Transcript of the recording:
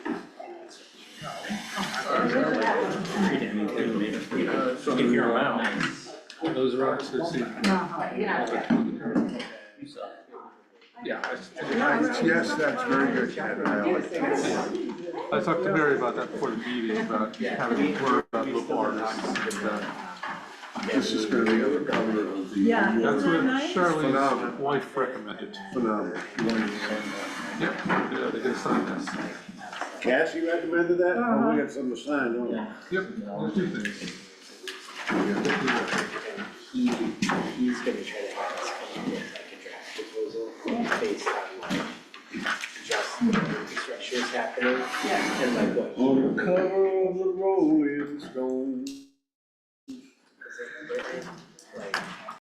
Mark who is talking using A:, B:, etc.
A: Uh, so-
B: Give your amount.
A: Those rocks are seen.
C: No, you know,
A: Yeah. I s-
D: Yes, that's very good, Ken, I like that.
A: I talked to Barry about that before the meeting, about having to worry about local artists. and that.
D: This is gonna be on the cover of the.
E: Yeah.
A: That's
E: Isn't
A: what
E: that nice?
A: Charlene's wife recommended.
D: Phenomenal.
A: Yep, yeah, they can sign this.
D: Cassie recommended that? Oh, we got something to sign, don't we?
A: Yep, there's two things.
F: He, he's gonna try to have us come up with like a draft proposal based on like just the infrastructure is happening
E: Yeah.
F: and like what.
D: On the cover of the Rolling Stone.